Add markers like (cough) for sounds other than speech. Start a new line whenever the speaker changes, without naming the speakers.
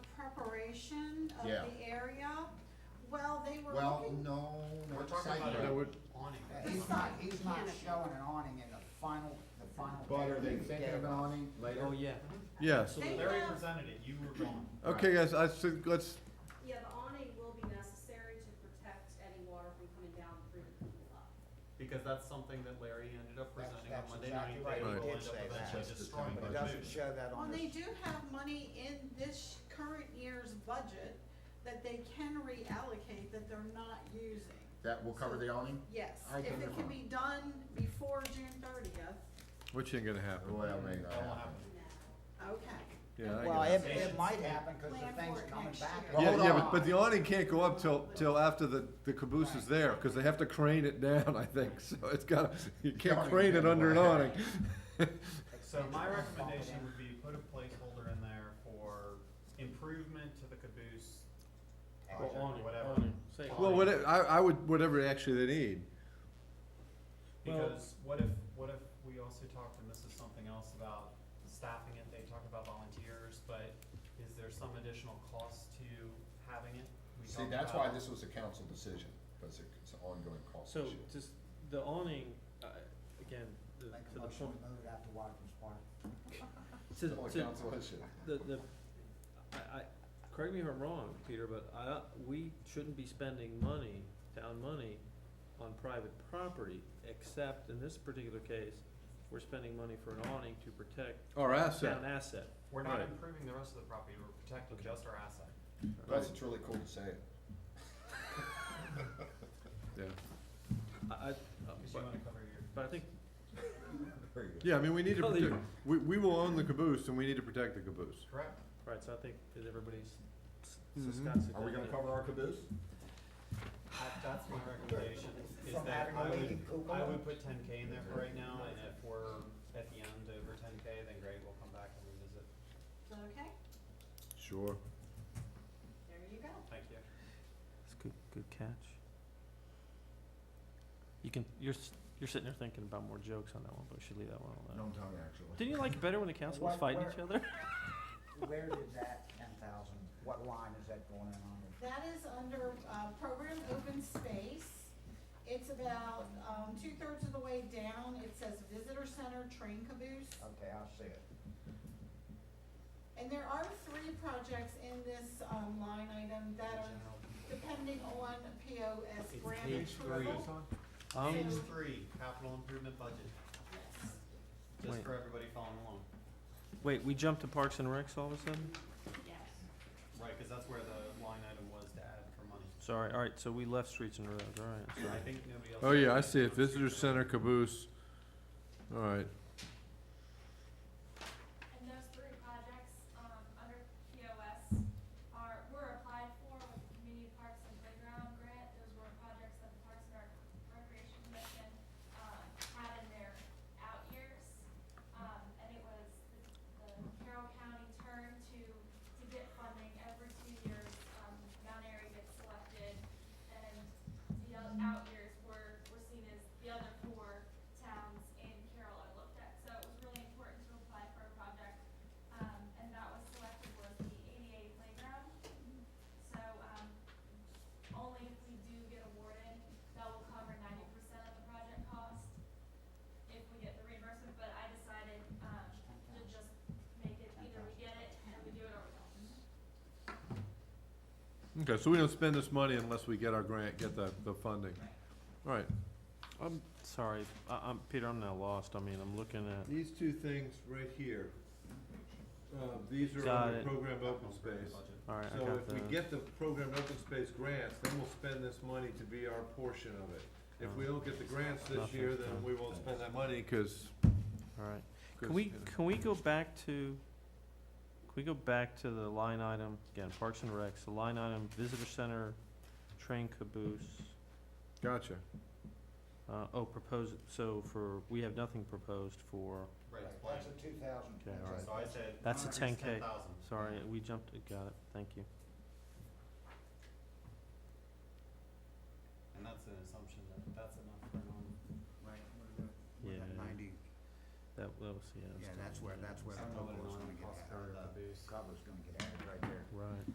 of
Yeah.
the area. Well, they were
Well,
looking,
no,
We're
no,
talking
side
about
yard.
an
would-
awning.
He's not, he's not
Canopy.
showing an awning in the final, the final.
But are
picture
they
you
thinking
gave
of an
us.
awning later?
Oh, yeah.
Yes.
They
Larry
have-
presented it, you were gone.
Okay, guys, I said, let's,
Yeah, the awning will be necessary to protect any water from coming down through the pool up.
Because that's something that Larry ended up
That's-
presenting on
that's
Monday
exactly
night.
right.
They
He
will
did
end up
say that.
eventually
Just the
destroying
time
But it
the
budget.
doesn't
food.
show that
well,
on
they
this.
do have money in this current year's budget that they can reallocate that they're not using.
That will cover the awning?
Yes,
I
if
can-
it can be done before June thirtieth,
which ain't gonna happen.
Well, maybe not
That won't
happen.
happen.
Now,
okay.
Yeah, I
Well,
guess.
it, it might happen, cause
Plan
the thing's
for it
coming
next
back.
year.
Well,
Yeah,
hold
yeah,
on.
but, but the awning can't go up till, till after the, the caboose is there, cause they have to crane it down, I think, (laughs) so it's gotta, you can't
Awning
crane it
down,
under an
right. (laughs)
awning.
So my recommendation would be put a placeholder in there for improvement to the caboose,
Well,
project, whatever.
Well,
Awning.
what, I, I would, whatever actually they need.
Because what if, what if we also talked, and this is something else about staffing it, they talked about volunteers, but is there some additional cost to having it? We
See,
talked
that's why
about-
this was a council decision, because it's an ongoing cost
So
issue.
just the awning, uh, again, the,
Make a
to the
motion
point,
to move it out to Watkins Park.
to,
It's only
to,
council issue.
the, the, I, I, correct me if I'm wrong, Peter, but I, we shouldn't be spending money, town money, on private property, except in this particular case, we're spending money for an awning to protect
Our asset,
town asset.
We're not
Right.
improving the rest of the property, we're protecting just our asset.
Plus, it's really cool to say it.
yeah.
I, I, uh,
Cause you
but,
wanna cover your.
but I think,
Very good.
Yeah, I mean, we need to
Well, they-
protect, we, we will own the caboose and we need to protect the caboose.
Correct.
right, so I think that everybody's, s-
Mm-hmm.
so
Mhm.
Scott's.
Are we gonna
definitely-
cover our caboose?
That, that's my recommendation, is
From
that
having a
I would,
leaking pool
I would
going?
put ten K in there for right now, and if we're at the end over ten K, then great, we'll come back and revisit.
Okay,
Sure.
there you go.
Thank you.
It's good, good catch. You can, you're, s- you're sitting there thinking about more jokes on that one, but we should leave that one alone.
No, not actually.
Didn't you like it better when the council was
What-
fighting
where-
each
(laughs)
other?
Where did that ten thousand, what line is that going in on?
That is under, uh, program open space. It's about, um, two-thirds of the way down. It says visitor center train caboose.
Okay, I see it.
And there are three projects in this, um, line item that are
General.
depending on POS
It's
grant
page three.
approval.
Um,
Page three, capital improvement budget,
Yes.
just
Wait.
for everybody following along.
wait, we jumped to Parks and Recs all of a sudden?
Yes.
Right, cause that's where the line item was to add for money.
Sorry, alright, so we left Streets and Roads, alright,
So I think nobody else.
Oh, yeah, I see it, visitor center caboose, alright.
And those three projects, um, under POS are, were applied for with the Community Parks and Playground Grant. Those were projects that the Parks and Rec- Recreation Commission, uh, had in their out years. Um, and it was the, the Carroll County turn to, to get funding every two years. Um, Mount Airy gets selected and the o- out years were, were seen as the other four towns in Carroll are looked at. So it was really important to apply for a project, um, and that was selected was the ADA playground. So, um, only if we do get awarded, that will cover ninety percent of the project cost if we get the reimbursement, but I decided, um, to just make it, either we get it and we do it or we don't.
Okay, so we don't spend this money unless we get our grant, get the, the funding. Alright,
I'm sorry, I, I'm, Peter, I'm now lost, I mean, I'm looking at,
These two things right here, uh, these are
Got
on the
it.
program
Capital
open
improvement
space.
budget.
alright, I
So
got
if we
the,
get the program open space grants, then we'll spend this money to be our portion of it. If
Oh.
we don't get the grants this
Nothing's
year, then
done.
we won't spend that money, cause.
alright.
'cause,
Can we,
you know.
can we go back to, can we go back to the line item, again, Parks and Recs, the line item, Visitor Center, Train Caboose?
Gotcha.
Uh, oh, proposed, so for, we have nothing proposed for,
Right, it's blank.
That's a two thousand.
Okay, all right.
So I said.
That's a
increase
10K.
10,000.
sorry, we jumped, got it, thank you.
And that's an assumption that that's enough for now.
Right, what is that?
Yeah.
Ninety,
That, that was, yeah. that was
yeah, that's where,
done,
that's where
I
the
don't know what an
cover's
awning
gonna get
costs for
added, or
that boost.
the cover's gonna get added right there.
Right.